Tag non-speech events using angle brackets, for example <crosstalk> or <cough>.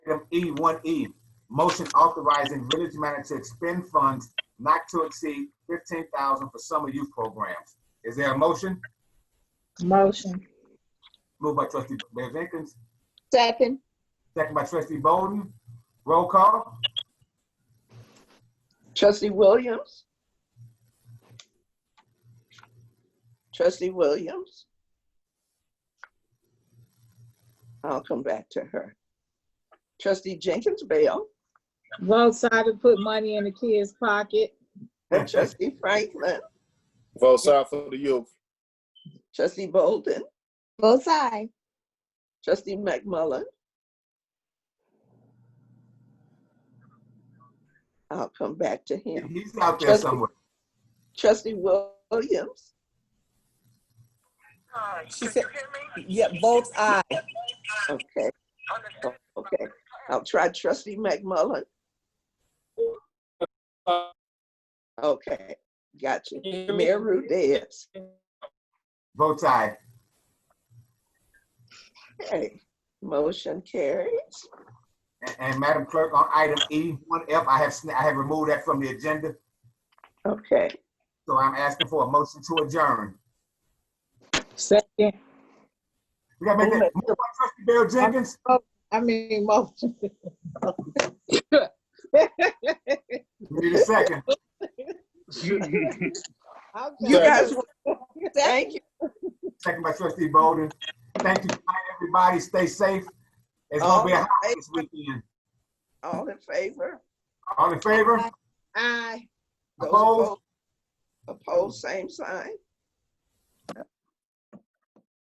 FE one E, motion authorizing village manager to expend funds not to exceed fifteen thousand for summer youth programs. Is there a motion? Motion. Moved by trustee Bev Jenkins, Second. second by trustee Bowden. Roll call. Trustee Williams? Trustee Williams? I'll come back to her. Trustee Jenkins Bale Both sides to put money in the kids' pocket. and trustee Franklin, Vote side for the youth. trustee Bolden, Both sides. trustee McMullen. I'll come back to him. He's out there somewhere. Trustee Williams, She said, yeah, both eyes. okay, okay. I'll try trustee McMullen. Okay, got you. Mayor Rudez. Vote aye. Okay, motion carries. And- And Madam Clerk, on item E one F, I have, sna- I have removed that from the agenda, Okay, so I'm asking for a motion to adjourn. Second. We gotta make that, moved by trustee Bill Jenkins, I mean, <laughs> motion. we need a second. you Okay. guys, thank you. Second by trustee Bowden. Thank you, everybody. Stay safe. It's gonna be a hot All in this weekend. fa- All in favor? All in favor? Aye. Those Opposed? Opposed, same sign.